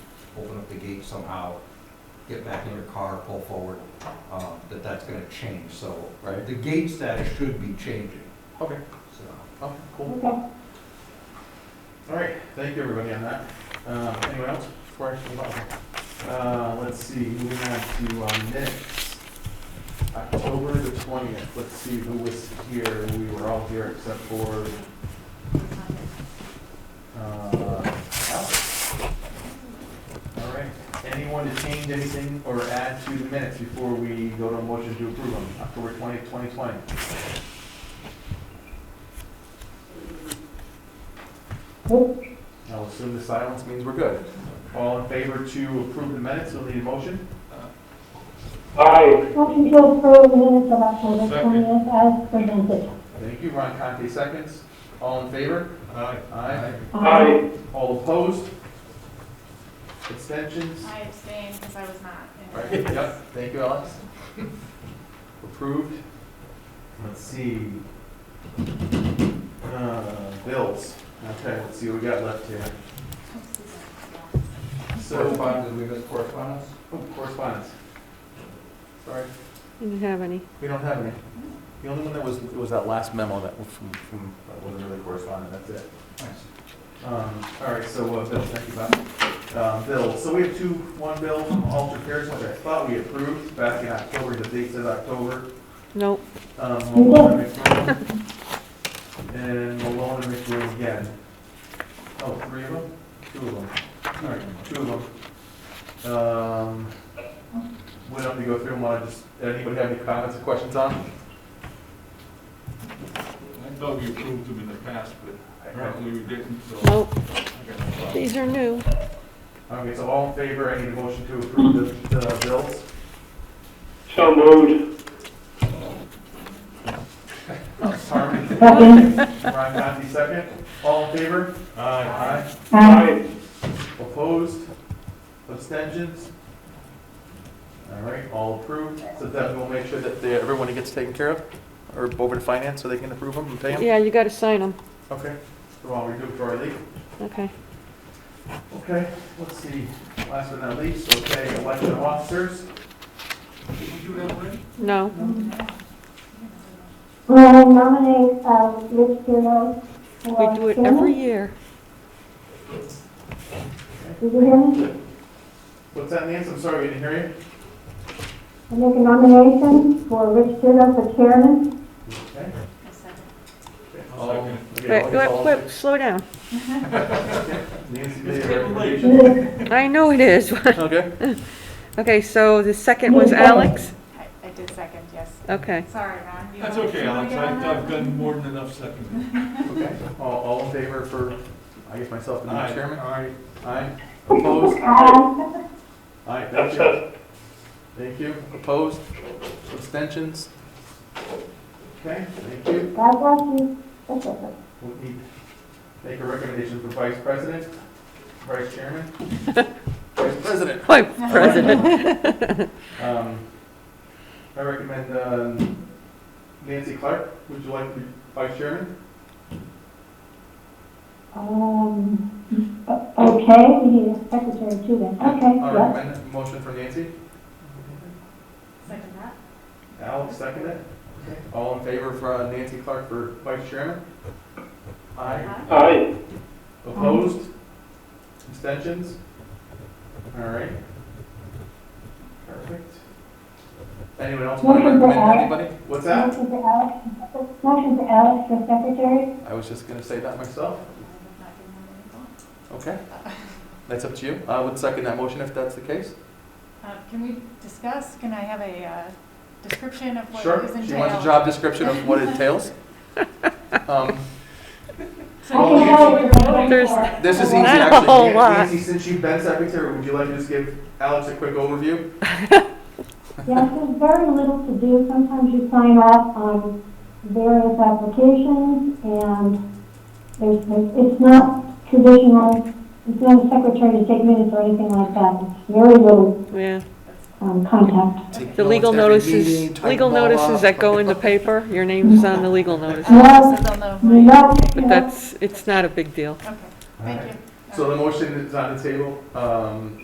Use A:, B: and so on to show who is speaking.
A: open up the gate somehow, get back in your car, pull forward, um, that that's gonna change, so.
B: Right.
A: The gate status should be changing,
B: Okay,
A: so.
B: oh, cool. All right, thank you everybody on that. Um, anyone else before I move on? Uh, let's see, moving on to um, minutes. October the twentieth, let's see who was here, we were all here except for, uh, Alex. All right, anyone to change anything or add to the minutes before we go to a motion to approve them, October twentieth, twenty twenty? I'll assume the silence means we're good. All in favor to approve the minutes, you'll need a motion?
C: Aye.
D: Motion to approve the minutes of October
B: Second.
D: twentieth as presented.
B: Thank you, Ron Conte, seconds. All in favor?
A: Aye.
B: Aye.
C: Aye.
B: All opposed? Abstentions?
C: I abstained because I was not. in
B: All right,
C: attendance.
B: yep, thank you, Alex. Approved. Let's see. Uh, Bills, okay, let's see what we got left here. So, uh,
A: Correspondence, did we miss correspondence?
B: oh, correspondence. Sorry.
E: Didn't have any.
B: We don't have any. The only one that was, was that last memo that was from, from, that wasn't really correspondent, that's it.
A: Nice.
B: Um, all right, so, uh, Bill, thank you, Bob. Um, Bill, so we have two, one bill from Alter Cares, which I thought we approved back in October, the date said October.
E: Nope.
B: Um, Malone and McBroom. And Malone and McBroom again. Oh, three of them? Two of them. All right, two of them. Um, we don't have to go through them, want to just, anybody have any comments or questions on? them?
F: I thought we approved them in the past, but apparently we didn't, so.
E: Nope.
F: I got no problem.
E: These are new.
B: Okay, so all in favor, I need a motion to approve the, the bills.
C: So moved.
B: Harmon,
D: Second.
B: Ryan Conti, second. All in favor? Aye.
D: Aye.
B: Opposed? Abstentions? All right, all approved. So Devin will make sure that they- everyone gets taken care of, or over to finance, so they can approve them and pay them?
E: Yeah, you gotta sign them.
B: Okay, so while we do it before I leave.
E: Okay.
B: Okay, let's see, last but not least, okay, election officers.
F: Did we do that already?
E: No.
D: Will nominate, uh, Rich Kudo for
E: We do it every year.
D: chairman. Did you hear me?
B: What's that, Nancy? I'm sorry, we didn't hear you.
D: I make a nomination for Rich Kudo for chairman.
B: Okay.
C: I second.
B: Okay,
F: I'll
B: all-
F: second
B: okay,
E: Wait,
B: all-
E: wait,
B: all-
E: wait, slow down.
B: Nancy
F: It's
B: made a
F: getting late.
B: recommendation.
E: I know it is.
B: Okay.
E: Okay, so the second was Alex?
C: I- I did second, yes.
E: Okay.
C: Sorry, Ron. you
F: That's
C: want-
F: okay,
C: you wanna
F: Alex,
C: get on
F: I've,
C: that?
F: I've done more than enough seconding.
B: Okay, all, all in favor for, I guess myself and the chairman?
F: Aye.
B: Aye. Opposed?
D: Aye.
B: Aye, thank you. Thank you. Opposed? Abstentions? Okay, thank you.
D: God bless you. That's it.
B: We'll need, make a recommendation for vice president, vice chairman, vice president.
E: Why, President?
B: Um, I recommend, um, Nancy Clark, would you like to be vice chairman?
D: Um, o- okay, we need a secretary too then. Okay,
B: I
D: yeah.
B: recommend a motion for Nancy.
C: Second that?
B: Alex, second it. All in favor for uh, Nancy Clark for vice chairman? Aye.
C: Uh-huh. Aye.
B: Opposed? Abstentions? All right. Perfect. Anyone else want to
D: Motion for
B: recommend
D: Alex.
B: anybody? What's that?
D: Motion to Alex, motion to Alex for secretary.
B: I was just gonna say that myself.
C: I have not given them any thought.
B: Okay. That's up to you. I would second that motion if that's the case.
C: Uh, Can we discuss, can I have a uh, description of what
B: Sure.
C: is entailed?
B: She wants a job description of what it entails. Um,
C: So
B: Oh,
C: you-
B: yeah.
C: so we're voting
E: There's-
C: for it.
B: This is easy,
E: Not a
B: actually.
E: whole
B: Nan-
E: lot.
B: Nancy, since you've been secretary, would you like to just give Alex a quick overview?
D: Yes, there's very little to do. Sometimes you sign off on various applications and there's, it's not traditional, it's not a secretary to take minutes or anything like that. It's very little,
E: Yeah.
D: um, contact.
E: The legal notices, legal notices that go in the paper, your name's on the legal notice.
C: So they'll know who you are.
D: No,
E: But
D: no.
E: that's, it's not a big deal.
C: Okay, thank you.
B: So the motion is on the table. Um,